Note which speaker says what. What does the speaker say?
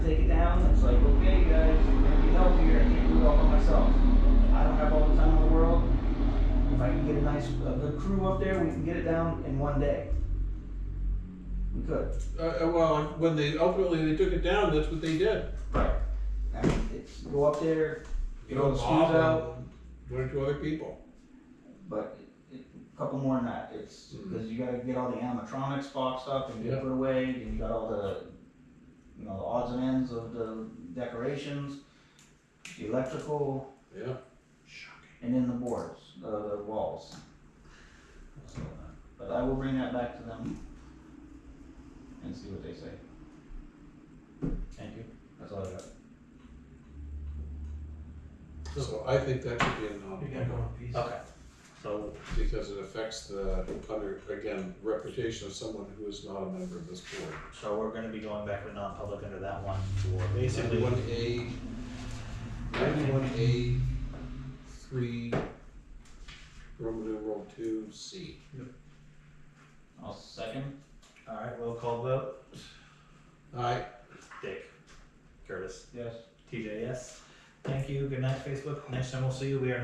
Speaker 1: nice, a good crew up there, we can get it down in one day. We could.
Speaker 2: Uh, uh, well, when they, ultimately, they took it down, that's what they did.
Speaker 1: Right. I mean, it's, go up there,
Speaker 2: You
Speaker 1: Throw
Speaker 2: know,
Speaker 1: the screws
Speaker 2: off
Speaker 1: out.
Speaker 2: and One or two other people.
Speaker 1: but it- it- a couple more than that, it's, cause you gotta get all the animatronics boxed up and
Speaker 2: Yeah.
Speaker 1: put away, and you got all the, you know, the odds and ends of the decorations, the electrical,
Speaker 2: Yeah.
Speaker 1: and then the boards, the, the walls. So, But I will bring that back to them and see what they say. Thank you, that's all I got.
Speaker 2: So I think that should be a
Speaker 3: You gotta go
Speaker 2: non,
Speaker 3: in peace.
Speaker 1: Okay.
Speaker 4: So,
Speaker 2: because it affects the, under, again, reputation of someone who is not a member of this board.
Speaker 4: so we're gonna be going back with non-public under that one for basically,
Speaker 2: Ninety-one A, ninety-one A, three, Roman numeral two, C.
Speaker 1: I'll second,
Speaker 4: alright, roll call vote,
Speaker 2: Aye,
Speaker 4: Dick, Curtis,
Speaker 1: yes.
Speaker 4: TJ, yes. Thank you, good night, Facebook, next time we'll see you, we are